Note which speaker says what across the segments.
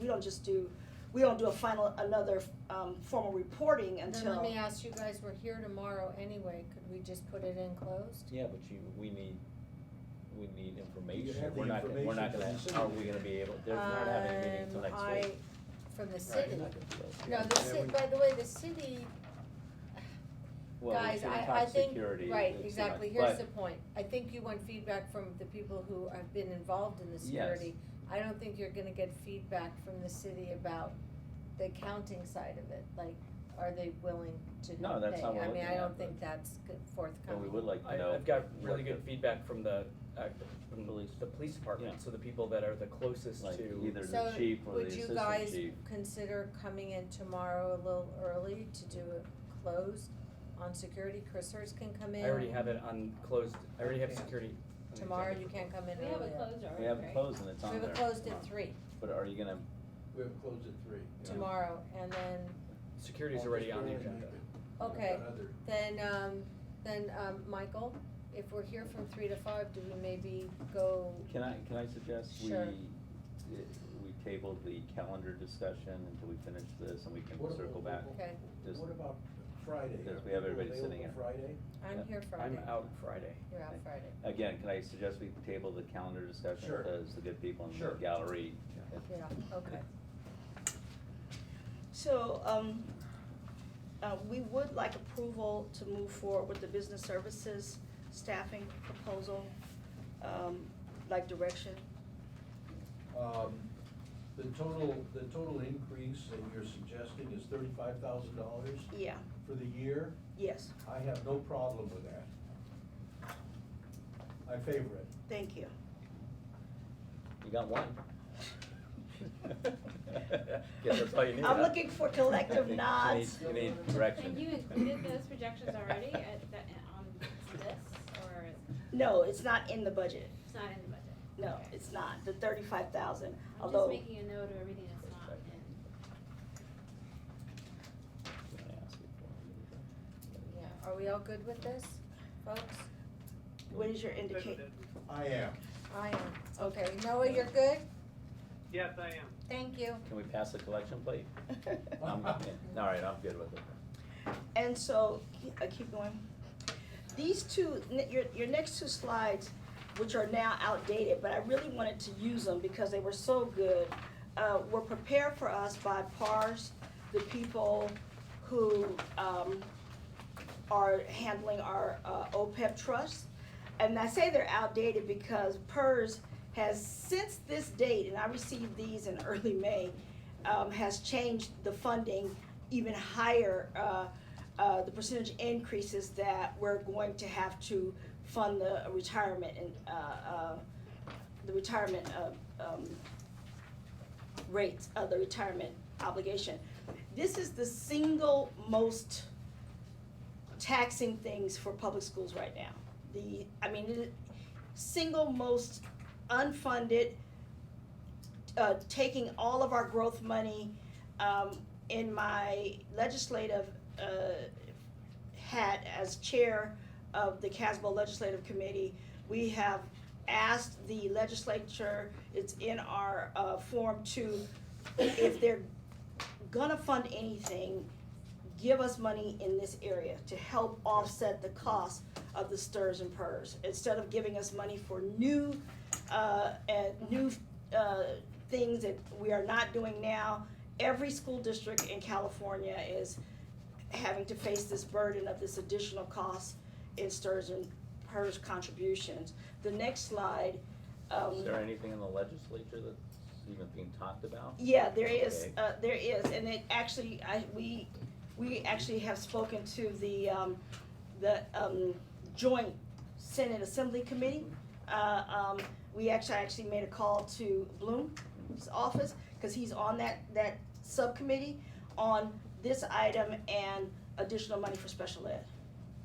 Speaker 1: we don't just do, we don't do a final, another, um, formal reporting
Speaker 2: Then let me
Speaker 1: until,
Speaker 2: ask you guys, we're here tomorrow anyway, could we just put it in closed?
Speaker 3: Yeah, but you, we need, we need information,
Speaker 4: have
Speaker 3: we're
Speaker 4: the
Speaker 3: not, gonna- we're not gonna,
Speaker 4: information from the
Speaker 3: are we gonna be able, they're not having a meeting until
Speaker 1: Um,
Speaker 3: next week.
Speaker 1: I-
Speaker 2: From the
Speaker 3: Right,
Speaker 2: city?
Speaker 3: you're not gonna be able to.
Speaker 2: No, the ci- by the way, the city,
Speaker 3: Well, we
Speaker 2: guys,
Speaker 3: shouldn't
Speaker 2: I,
Speaker 3: talk
Speaker 2: I think,
Speaker 3: security
Speaker 2: right,
Speaker 3: and too
Speaker 2: exactly,
Speaker 3: much,
Speaker 2: here's
Speaker 3: but-
Speaker 2: the point, I think you want feedback from the people who have been involved in the
Speaker 3: Yes.
Speaker 2: security. I don't think you're gonna get feedback from the city about the accounting side of it, like, are they willing to pay?
Speaker 3: No, that's how we're
Speaker 2: I mean,
Speaker 3: looking
Speaker 2: I
Speaker 3: at
Speaker 2: don't
Speaker 3: it.
Speaker 2: think that's good
Speaker 3: But
Speaker 2: forthcoming.
Speaker 3: we would like to know.
Speaker 5: I, I've got
Speaker 3: what
Speaker 5: really
Speaker 3: the-
Speaker 5: good feedback from the, uh, from
Speaker 3: Police.
Speaker 5: the police
Speaker 3: Yeah.
Speaker 5: department, so the people that are the closest
Speaker 3: Like
Speaker 5: to,
Speaker 3: either the chief or the
Speaker 2: So, would you
Speaker 3: assistant
Speaker 2: guys
Speaker 3: chief.
Speaker 2: consider coming in tomorrow a little early to do a close on security? Chris Hurst can come in.
Speaker 5: I already have it on closed, I already have
Speaker 4: Yeah.
Speaker 5: security. on the
Speaker 2: Tomorrow you
Speaker 5: executive.
Speaker 2: can't come in
Speaker 6: We
Speaker 2: earlier.
Speaker 6: have a closed
Speaker 3: We
Speaker 6: already,
Speaker 3: have it
Speaker 6: right?
Speaker 3: closed and it's on
Speaker 2: We
Speaker 3: there.
Speaker 2: have it closed at three
Speaker 3: But are you gonna,
Speaker 4: We have closed at three.
Speaker 2: tomorrow, and then,
Speaker 5: Security's already on the agenda.
Speaker 2: Okay. then, um, then, um, Michael, if we're here from three to five, do we maybe go,
Speaker 3: can I, can I suggest we,
Speaker 2: Sure.
Speaker 3: eh, we table the calendar discussion until we finish this and we can circle back?
Speaker 2: okay,
Speaker 3: Just-
Speaker 4: What about Friday?
Speaker 3: Because
Speaker 4: Are
Speaker 3: we have
Speaker 4: people
Speaker 3: everybody sitting
Speaker 4: available Friday?
Speaker 2: I'm here Friday,
Speaker 5: I'm out Friday.
Speaker 2: you're out Friday.
Speaker 3: Again, can I suggest we table the calendar discussion?
Speaker 4: Sure.
Speaker 3: Because the good people in the
Speaker 4: Sure.
Speaker 3: gallery.
Speaker 4: Yeah.
Speaker 2: Yeah, okay.
Speaker 1: so, um, uh, we would like approval to move forward with the business services staffing proposal, um, like direction.
Speaker 4: Um, the total, the total increase that you're suggesting is thirty-five thousand dollars
Speaker 1: Yeah,
Speaker 4: for the year.
Speaker 1: yes,
Speaker 4: I have no problem with that. I favor it.
Speaker 1: thank you.
Speaker 3: You got one.
Speaker 5: Guess that's all you need,
Speaker 1: I'm
Speaker 5: huh?
Speaker 1: looking for collective
Speaker 3: You need-
Speaker 1: nods.
Speaker 3: You need direction.
Speaker 6: And you included those projections already at the, on this, or
Speaker 1: No, it's not in the budget,
Speaker 6: it's not in the budget?
Speaker 1: no,
Speaker 6: Okay.
Speaker 1: it's not, the thirty-five thousand,
Speaker 6: I'm just
Speaker 1: although,
Speaker 6: making a note of everything that's not in.
Speaker 2: Yeah, are we all good with this, folks?
Speaker 1: what is your indicate?
Speaker 4: I am.
Speaker 2: I am, okay, Noah, you're good?
Speaker 7: Yes, I am.
Speaker 2: Thank you.
Speaker 3: Can we pass the collection plate? I'm, yeah, all right, I'm good with it.
Speaker 1: And so, ke- uh, keep going. These two, n- your, your next two slides, which are now outdated, but I really wanted to use them because they were so good, uh, were prepared for us by PARS, the people who, um, are handling our, uh, OPEB trust. And I say they're outdated because PERS has, since this date, and I received these in early May, um, has changed the funding even higher, uh, uh, the percentage increases that we're going to have to fund the retirement and, uh, uh, the retirement, uh, um, rates of the retirement obligation. This is the single most taxing things for public schools right now. The, I mean, it- single most unfunded, uh, taking all of our growth money, um, in my legislative, uh, hat as chair of the Casbo Legislative Committee, we have asked the legislature, it's in our, uh, form to, if they're gonna fund anything, give us money in this area to help offset the cost of the stirs and purrs. Instead of giving us money for new, uh, and new, uh, things that we are not doing now, every school district in California is having to face this burden of this additional cost in stirs and purrs contributions. The next slide, um.
Speaker 3: Is there anything in the legislature that's even being talked about?
Speaker 1: Yeah, there is,
Speaker 3: Okay.
Speaker 1: uh, there is, and it actually, I, we, we actually have spoken to the, um, the, um, joint Senate Assembly Committee. Uh, um, we actually, I actually made a call to Bloom's office, cause he's on that, that subcommittee on this item and additional money for special ed.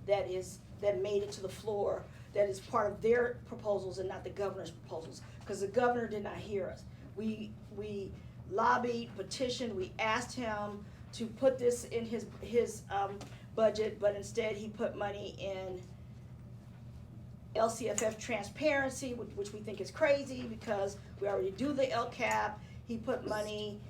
Speaker 1: That is, that made it to the floor, that is part of their proposals and not the governor's proposals, cause the governor did not hear us. We, we lobbied, petitioned, we asked him to put this in his, his, um, budget, but instead he put money in LCFF transparency, which, which we think is crazy because we already do the LCAP. He put money